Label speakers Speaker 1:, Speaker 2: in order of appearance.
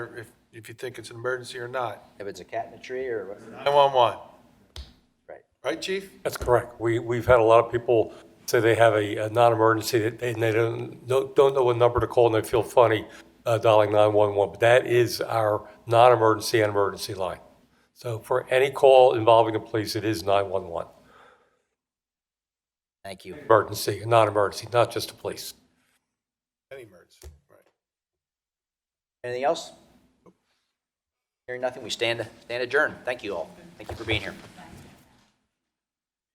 Speaker 1: if, if you think it's an emergency or not.
Speaker 2: If it's a cat in a tree or, what-
Speaker 1: 911,
Speaker 2: right.
Speaker 1: right, chief?
Speaker 3: That's correct. We, we've had a lot of people say they have a, a non-emergency that they, and they don't, don't don't know what number to call and they feel funny uh, dialing 911. But that is our non-emergency and emergency line. So for any call involving the police, it is 911.
Speaker 2: Thank you.
Speaker 3: Emergency, and non-emergency, not just the police.
Speaker 1: Any emergency, right.
Speaker 2: Anything else? Hearing nothing, we stand, stand adjourned. Thank you all. Thank you for being here.